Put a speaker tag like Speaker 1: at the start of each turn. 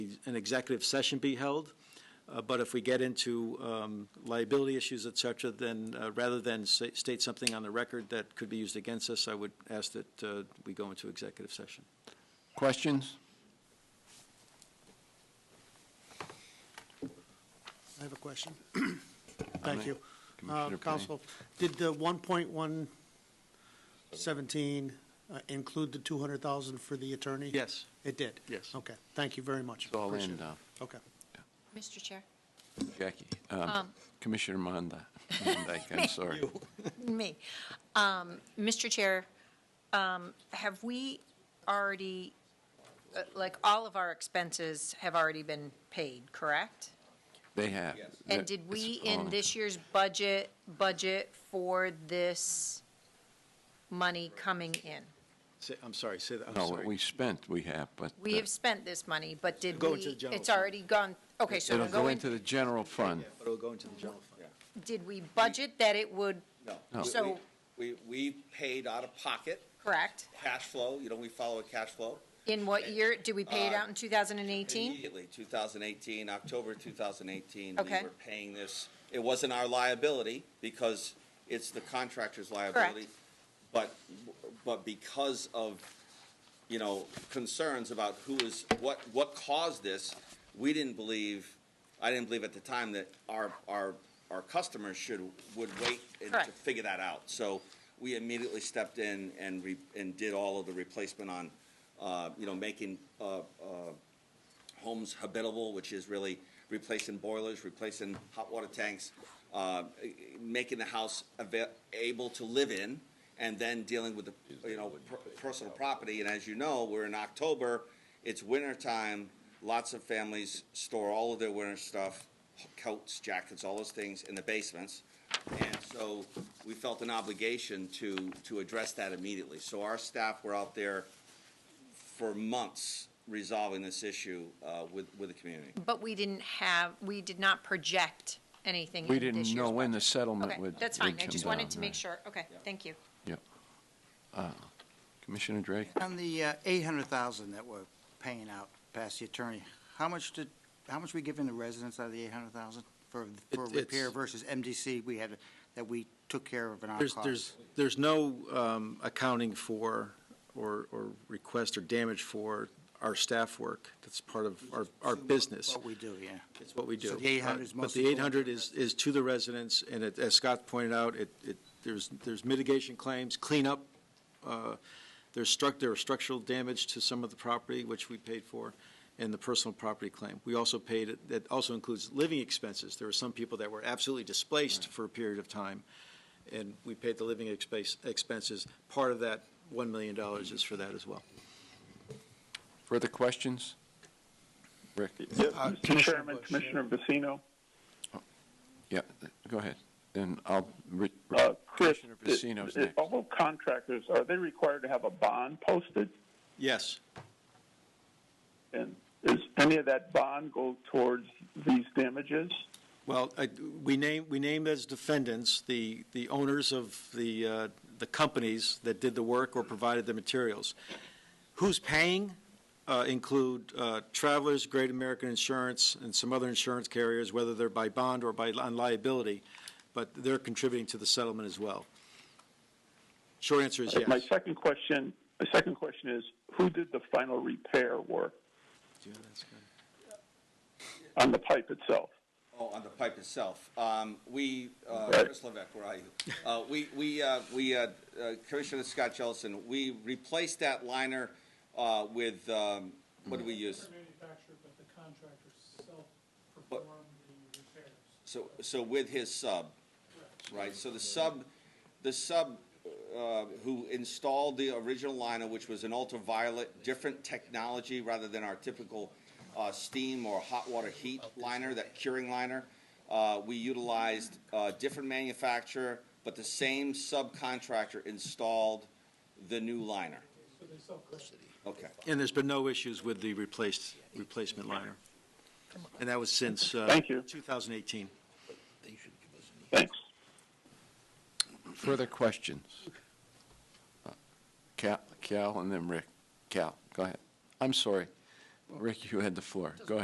Speaker 1: an executive session be held. Uh, But if we get into um, liability issues, et cetera, then uh, rather than sa- state something on the record that could be used against us, I would ask that uh, we go into executive session.
Speaker 2: Questions?
Speaker 3: I have a question.
Speaker 2: Comment?
Speaker 3: Thank you. Uh,
Speaker 2: Commissioner Payne?
Speaker 3: Council, did the one point one seventeen uh, include the two hundred thousand for the attorney?
Speaker 1: Yes.
Speaker 3: It did?
Speaker 1: Yes.
Speaker 3: Okay, thank you very much.
Speaker 2: It's all
Speaker 3: Appreciate
Speaker 2: in,
Speaker 3: it.
Speaker 2: uh,
Speaker 3: Okay.
Speaker 4: Mr. Chair.
Speaker 2: Jackie, um, Commissioner Monda, Monday, I'm sorry.
Speaker 4: Me. Um, Mr. Chair, um, have we already, uh, like, all of our expenses have already been paid, correct?
Speaker 2: They have.
Speaker 4: And did we, in this year's budget, budget for this money coming in?
Speaker 1: Say- I'm sorry, say that, I'm
Speaker 2: No, what
Speaker 1: sorry.
Speaker 2: we spent, we have, but.
Speaker 4: We
Speaker 2: uh,
Speaker 4: have spent this money, but did
Speaker 1: Go
Speaker 4: we,
Speaker 1: into the general
Speaker 4: it's
Speaker 1: fund.
Speaker 4: already gone, okay, so
Speaker 2: It'll
Speaker 4: it'll go
Speaker 2: go
Speaker 4: in,
Speaker 2: into the general fund.
Speaker 1: Yeah, But it'll go into the general fund.
Speaker 4: did we budget that it would,
Speaker 2: No.
Speaker 4: No.
Speaker 5: No.
Speaker 4: So-
Speaker 5: We, we paid out of pocket,
Speaker 4: correct?
Speaker 5: cash flow, you know, we follow a cash flow.
Speaker 4: In what year, did we
Speaker 1: uh,
Speaker 4: pay it out in 2018?
Speaker 5: Immediately, 2018, October 2018.
Speaker 4: Okay.
Speaker 5: We were paying this, it wasn't our liability because it's the contractor's liability. But, but because of, you know, concerns about who is, what, what caused this, we didn't believe, I didn't believe at the time that our, our, our customers should, would wait and to
Speaker 4: Correct.
Speaker 5: figure that out. So we immediately stepped in and re, and did all of the replacement on, uh, you know, making, uh, uh, homes habitable, which is really replacing boilers, replacing hot water tanks, uh, making the house ava- able to live in, and then dealing with the, you know, per- personal property. And as you know, we're in October, it's winter time, lots of families store all of their winter stuff, coats, jackets, all those things in the basements. And so we felt an obligation to, to address that immediately. So our staff were out there for months resolving this issue uh, with, with the community.
Speaker 4: But we didn't have, we did not project anything
Speaker 2: We
Speaker 4: in this
Speaker 2: didn't
Speaker 4: year's
Speaker 2: know when the
Speaker 4: budget.
Speaker 2: settlement
Speaker 4: Okay,
Speaker 2: would.
Speaker 4: that's
Speaker 2: would
Speaker 4: fine. I
Speaker 2: come
Speaker 4: just wanted
Speaker 2: down,
Speaker 4: to make
Speaker 2: right.
Speaker 4: sure. Okay, thank you.
Speaker 2: Yep. Uh, Commissioner Drake?
Speaker 6: On the uh, 800,000 that we're paying out past the attorney, how much did, how much we giving the residents out of the 800,000 for, for
Speaker 1: It-
Speaker 6: repair
Speaker 1: it's-
Speaker 6: versus MDC we had, that we took care of in our
Speaker 1: There's,
Speaker 6: costs?
Speaker 1: there's, there's no um, accounting for or, or request or damage for our staff work. That's part of our, our business.
Speaker 6: What we do, yeah.
Speaker 1: It's what we do.
Speaker 6: So the 800 is
Speaker 1: Uh, But
Speaker 6: mostly
Speaker 1: the
Speaker 6: for-
Speaker 1: 800 is, is to the residents, and it- as Scott pointed out, it, it, there's, there's mitigation claims, cleanup, uh, there's struct, there are structural damage to some of the property, which we paid for, and the personal property claim. We also paid, that also includes living expenses. There were some people that were absolutely displaced for a period of time, and we paid the living expense, expenses. Part of that $1 million is for that as well.
Speaker 2: Further questions? Rick?
Speaker 7: Yeah, Mr. Uh, Chairman, Commissioner Vecino,
Speaker 2: Yeah, go ahead. Then I'll, re-
Speaker 7: uh, Chris,
Speaker 2: Commissioner Vecino's
Speaker 7: i- i-
Speaker 2: next.
Speaker 7: all contractors, are they required to have a bond posted?
Speaker 1: Yes,
Speaker 7: And is any of that bond go towards these damages?
Speaker 1: Well, I- we name, we named as defendants the, the owners of the, uh, the companies that did the work or provided the materials. Who's paying uh, include uh, Travelers, Great American Insurance, and some other insurance carriers, whether they're by bond or by, on liability, but they're contributing to the settlement as well. Short answer is
Speaker 7: Uh, My
Speaker 1: yes.
Speaker 7: second question, my second question is, who did the final repair work on the pipe itself?
Speaker 5: Oh, on the pipe itself. Um, we, uh,
Speaker 7: Right.
Speaker 5: Chris Levesque, where are you? Uh, we, we, uh, we, uh, uh, Commissioner Scott Jellison, we replaced that liner, uh, with, um, what do we use?
Speaker 8: manufacturer, but the contractor self-performed the repairs.
Speaker 5: So, so with his sub, right? So the sub, the sub, uh, who installed the original liner, which was an ultraviolet, different technology rather than our typical, uh, steam or hot water heat liner, that curing liner. Uh, we utilized, uh, different manufacturer, but the same subcontractor installed the new liner. Okay.
Speaker 1: And there's been no issues with the replaced, replacement liner. And that was since uh,
Speaker 7: Thank you.
Speaker 1: 2018.
Speaker 7: Thanks.
Speaker 2: Further questions? Uh, Cal, Cal, and then Rick. Cal, go ahead. I'm sorry. Rick, you had the floor. Go ahead.